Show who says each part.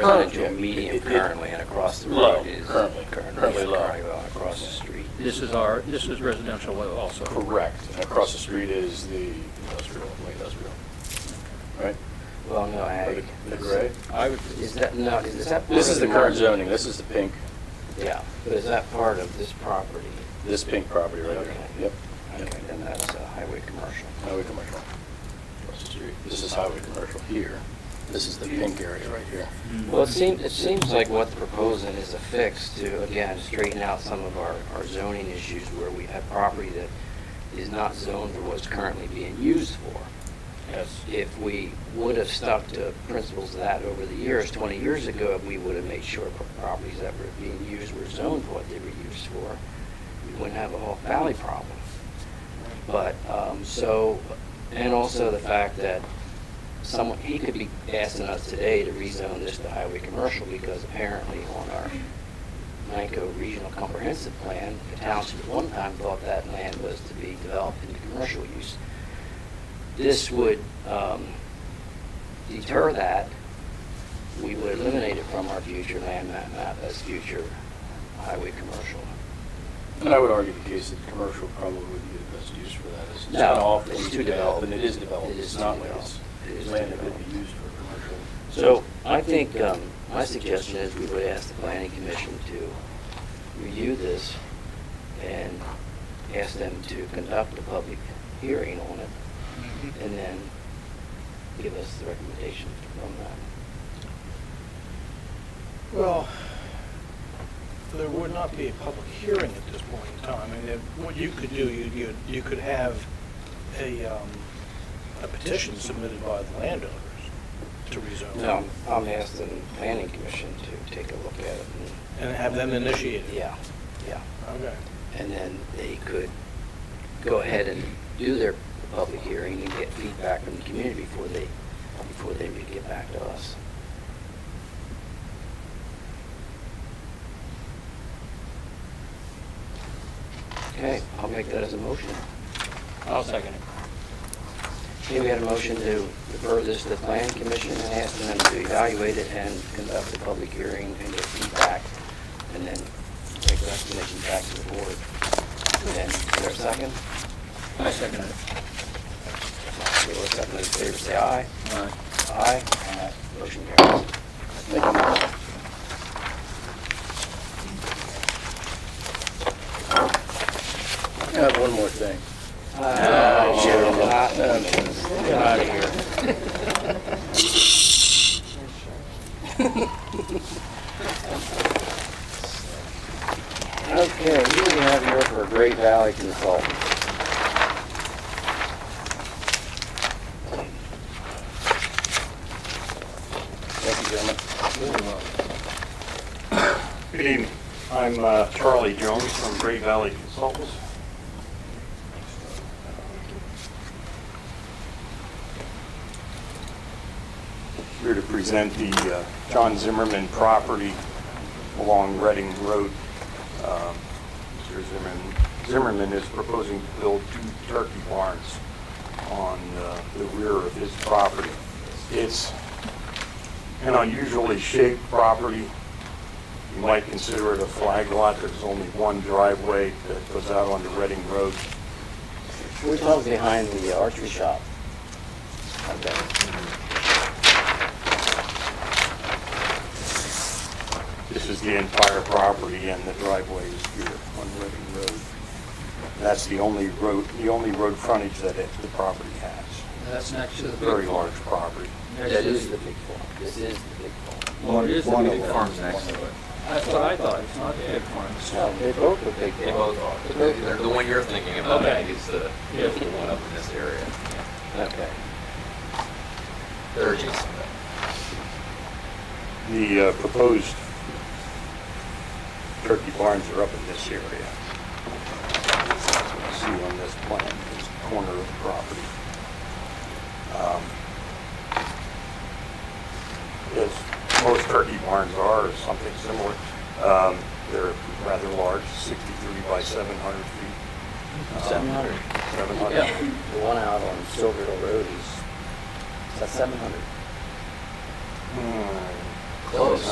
Speaker 1: residential
Speaker 2: Currently.
Speaker 1: medium
Speaker 2: It- it-
Speaker 1: currently and across the
Speaker 2: Low,
Speaker 1: road is.
Speaker 2: currently. Currently low.
Speaker 1: Currently low, across the street.
Speaker 3: This is our, this is residential low also.
Speaker 2: Correct. And across the street is the industrial, light industrial. Right?
Speaker 1: Well, no, ag.
Speaker 2: The gray?
Speaker 3: I would,
Speaker 1: Is that, no, is that?
Speaker 2: This is the
Speaker 1: part
Speaker 2: current
Speaker 1: of-
Speaker 2: zoning. This is the pink,
Speaker 1: Yeah, but is that part of this property?
Speaker 2: this pink property right here.
Speaker 1: Okay.
Speaker 2: Yep.
Speaker 1: Okay, then that's uh, highway commercial.
Speaker 2: Highway commercial. Across the street. This is highway commercial here. This is the pink area right here.
Speaker 1: Well, it seems, it seems like what they're proposing is a fix to, again, straighten out some of our, our zoning issues where we have property that is not zoned for what's currently being used for.
Speaker 2: Yes.
Speaker 1: if we would have stuck to principles of that over the years, 20 years ago, we would have made sure pro- properties that were being used were zoned for what they were used for, we wouldn't have a whole valley problem. But, um, so, and also the fact that someone, he could be asking us today to rezone this to highway commercial because apparently on our Nanko Regional Comprehensive Plan, the township at one time thought that land was to be developed into commercial use this would um, deter that. We would eliminate it from our future land map map as future highway commercial.
Speaker 2: And I would argue the case that commercial probably would be the best use for that. It's
Speaker 1: No,
Speaker 2: not off,
Speaker 1: it's
Speaker 2: it's
Speaker 1: too
Speaker 2: too
Speaker 1: developed.
Speaker 2: developed, and it is developed.
Speaker 1: It is
Speaker 2: It's
Speaker 1: too
Speaker 2: not like
Speaker 1: developed.
Speaker 2: it's
Speaker 1: It is too
Speaker 2: land that
Speaker 1: developed.
Speaker 2: could be used for commercial.
Speaker 1: So I think um, my suggestion is we would ask the planning commission to review this and ask them to conduct a public hearing on it and then give us the recommendation from that.
Speaker 4: Well, there would not be a public hearing at this point in time. I mean, if- what you could do, you, you, you could have a, um, a petition submitted by the landowners to rezone.
Speaker 1: No, I'm asking the planning commission to take a look at it
Speaker 4: And have them initiate
Speaker 1: and,
Speaker 4: it.
Speaker 1: yeah, yeah.
Speaker 4: Okay.
Speaker 1: and then they could go ahead and do their public hearing and get feedback from the community before they, before they would get back to us. Okay, I'll make that as a motion.
Speaker 3: I'll second it.
Speaker 1: Okay, we had a motion to refer this to the planning commission and ask them to evaluate it and conduct a public hearing and get feedback, and then take the recommendation back to the board. And is there a second?
Speaker 3: I second it.
Speaker 1: Okay, let's have those in favor say aye.
Speaker 3: All right.
Speaker 1: Aye. Motion carries.
Speaker 2: Thank you. I have one more thing.
Speaker 1: Uh,
Speaker 2: sure.
Speaker 1: not-
Speaker 2: Uh,
Speaker 1: not here. Okay, who do we have here for Great Valley Consulting?
Speaker 2: Thank you, gentlemen.
Speaker 5: Good evening. I'm uh, Charlie Jones from Great Valley Consultants. Here to present the uh, John Zimmerman property along Reading Road. Um, Mr. Zimmerman- Zimmerman is proposing to build two turkey barns on uh, the rear of his property. It's an unusually shaped property. You might consider it a flag lot. There's only one driveway that goes out onto Reading Road.
Speaker 1: We're talking behind the archery shop. Okay.
Speaker 5: This is the entire property and the driveway is here on Reading Road. That's the only road, the only road frontage that it, the property has.
Speaker 3: That's next to the
Speaker 5: Very
Speaker 3: big farm.
Speaker 5: large property.
Speaker 3: Next
Speaker 1: That
Speaker 3: to-
Speaker 1: is the big farm. This is the big farm.
Speaker 3: Well, it is the big farms next to it. That's what I thought, it's not the big farms.
Speaker 1: No, they both are big
Speaker 6: They
Speaker 1: farms.
Speaker 6: both are. The- The the one you're thinking about, uh, I think, is the, is the one up in this area.
Speaker 1: Okay.
Speaker 6: They're adjacent.
Speaker 5: The uh, proposed turkey barns are up in this area. See on this plan, this corner of the property. Um, As most turkey barns are, or something similar, um, they're rather large, 63 by 700 feet. Um,
Speaker 1: 700.
Speaker 5: 700.
Speaker 1: Yeah, the one out on Silver Hill Road is, is that seven hundred?
Speaker 5: Hmm,
Speaker 1: Close.